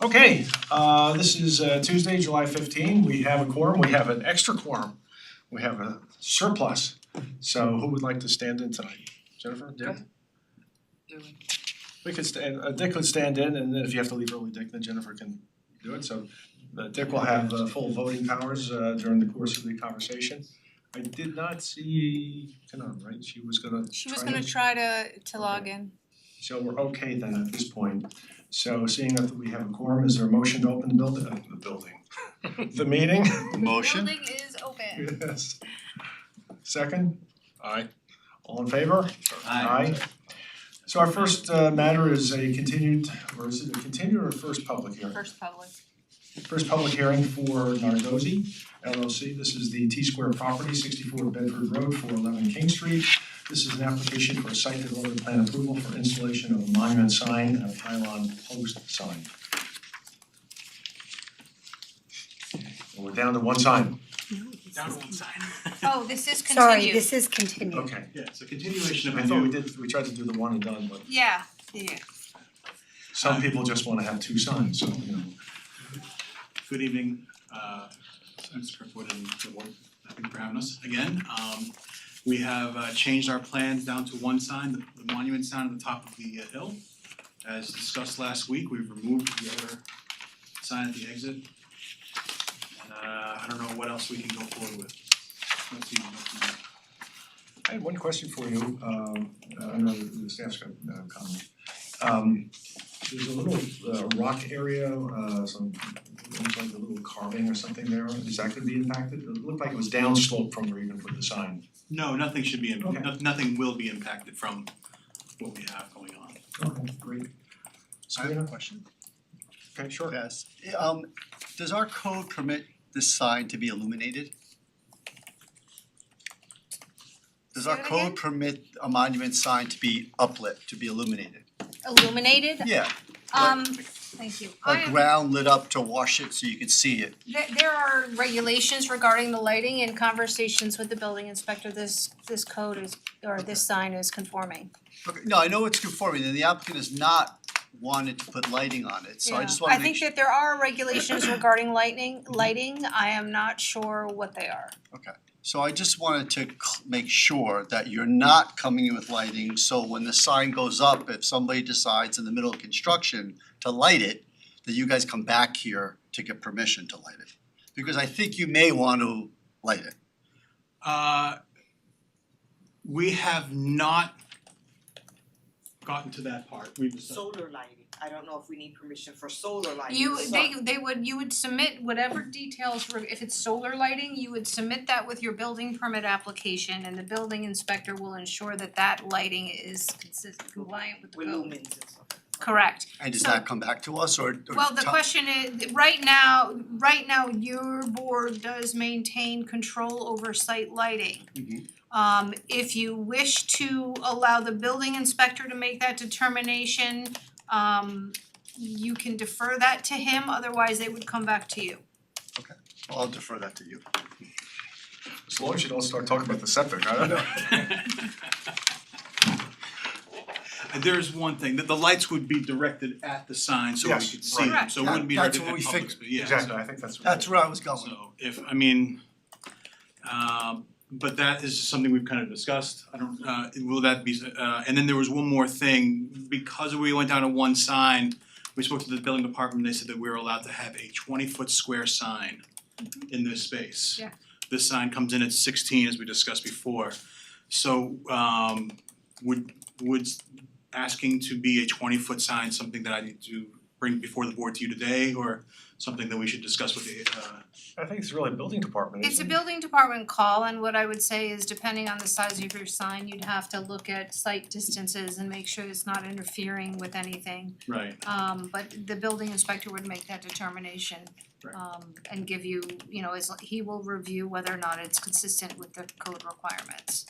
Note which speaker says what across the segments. Speaker 1: Okay, uh this is uh Tuesday, July fifteen, we have a quorum, we have an extra quorum, we have a surplus. So who would like to stand in tonight? Jennifer, Dick? We could stand, uh Dick could stand in and then if you have to leave early, Dick, then Jennifer can do it, so uh Dick will have uh full voting powers uh during the course of the conversation. I did not see Kanan, right? She was gonna
Speaker 2: She was
Speaker 1: try
Speaker 2: gonna
Speaker 1: to-
Speaker 2: try to to log in.
Speaker 1: So we're okay then at this point. So seeing that we have a quorum, is there a motion to open the building, uh, the building? The meeting?
Speaker 3: Motion?
Speaker 2: Building is open.
Speaker 1: Yes. Second? Aye. All in favor?
Speaker 4: Aye.
Speaker 1: So our first uh matter is a continued, or is it a continued or first public hearing?
Speaker 2: First public.
Speaker 1: First public hearing for Nardozzi LLC. This is the T Square property, sixty-four Bedford Road, four eleven King Street. This is an application for a site development plan approval for installation of a monument sign and a pylon post sign. And we're down to one sign.
Speaker 4: Down one side.
Speaker 2: Oh, this is
Speaker 5: Sorry,
Speaker 2: continued.
Speaker 5: this is continued.
Speaker 1: Okay.
Speaker 4: Yeah, so continuation of
Speaker 1: I
Speaker 4: a
Speaker 1: thought we
Speaker 4: new,
Speaker 1: did, we tried to do the one and done, but
Speaker 2: Yeah, yeah.
Speaker 1: some people just wanna have two signs, so you know.
Speaker 4: good evening, uh, Mr. Kirkwood and the board, thank you for having us again. Um, we have uh changed our plans down to one sign, the- the monument sign on the top of the uh, hill. As discussed last week, we've removed the other sign at the exit. And uh, I don't know what else we can go forward with. Let's see, what's next.
Speaker 1: I had one question for you, um, uh, under the staff's com- uh, comment. Um, there's a little uh, rock area, uh, some, looks like a little carving or something there, is that gonna be impacted? It looked like it was downslope from where you even put the sign.
Speaker 4: No, nothing should be,
Speaker 1: Okay.
Speaker 4: im- no- nothing will be impacted from what we have going on.
Speaker 1: Okay, great. So I have a question. Okay, sure.
Speaker 6: Yes, um, does our code permit this sign to be illuminated? Does
Speaker 2: Say
Speaker 6: our
Speaker 2: that again?
Speaker 6: code permit a monument sign to be uplit, to be illuminated?
Speaker 2: Illuminated.
Speaker 6: Yeah,
Speaker 2: Um, thank you. I
Speaker 6: like
Speaker 2: am-
Speaker 6: ground lit up to wash it so you can see it.
Speaker 2: There there are regulations regarding the lighting and conversations with the building inspector. This this code is, or this sign is conforming.
Speaker 6: Okay, no, I know it's conforming, and the applicant has not wanted to put lighting on it, so I
Speaker 2: Yeah.
Speaker 6: just wanna
Speaker 2: I
Speaker 6: make
Speaker 2: think
Speaker 6: sure.
Speaker 2: that there are regulations regarding lightning, lighting. I am not sure what they are.
Speaker 6: So I just wanted to cl- make sure that you're not coming in with lighting, so when the sign goes up, if somebody decides in the middle of construction to light it, that you guys come back here to get permission to light it. Because I think you may want to light it.
Speaker 4: Uh, we have not gotten to that part. We've
Speaker 7: solar lighting, I don't know if we need permission for solar lighting.
Speaker 2: You,
Speaker 7: So-
Speaker 2: they they would, you would submit whatever details, were- if it's solar lighting, you would submit that with your building permit application and the building inspector will ensure that that lighting is consistent, compliant with the
Speaker 7: With
Speaker 2: code.
Speaker 7: lumens and stuff.
Speaker 2: Correct.
Speaker 6: And does
Speaker 2: So-
Speaker 6: that come back to us or or
Speaker 2: Well, the
Speaker 6: tell-
Speaker 2: question is, right now, right now, your board does maintain control over site lighting.
Speaker 6: Mhm.
Speaker 2: Um if you wish to allow the building inspector to make that determination, um you can defer that to him, otherwise they would come back to you.
Speaker 6: I'll defer that to you.
Speaker 1: As long as you don't start talking about the septic, I don't know.
Speaker 4: There's one thing, that the lights would be directed at the sign so we
Speaker 1: Yes,
Speaker 4: could see them,
Speaker 2: right.
Speaker 4: so it wouldn't be
Speaker 6: That-
Speaker 4: directed
Speaker 6: that's what
Speaker 4: at
Speaker 6: we
Speaker 4: public,
Speaker 6: figured.
Speaker 4: but yeah, so.
Speaker 1: Exactly, I think that's.
Speaker 6: That's where I was going.
Speaker 4: So if, I mean, um, but that is something we've kind of discussed, I don't, uh, will that be, uh, and then there was one more thing, because we went down to one sign, we spoke to the building department, they said that we were allowed to have a twenty-foot square sign in this space.
Speaker 2: Yeah.
Speaker 4: This sign comes in at sixteen, as we discussed before, so, um, would, would asking to be a twenty-foot sign something that I need to bring before the board to you today, or something that we should discuss with the, uh,
Speaker 1: I think it's really building department,
Speaker 2: It's a
Speaker 1: isn't it?
Speaker 2: building department call, and what I would say is depending on the size of your sign, you'd have to look at site distances and make sure it's not interfering with anything.
Speaker 4: Right,
Speaker 2: Um but the building inspector would make that determination.
Speaker 4: Right.
Speaker 2: Um and give you, you know, as he will review whether or not it's consistent with the code requirements.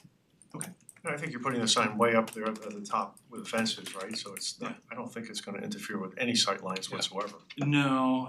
Speaker 1: And I think you're putting the sign way up there at the top with the fences, right? So it's not, I don't think it's gonna interfere with any sight lines
Speaker 4: Yeah.
Speaker 1: whatsoever.
Speaker 4: no,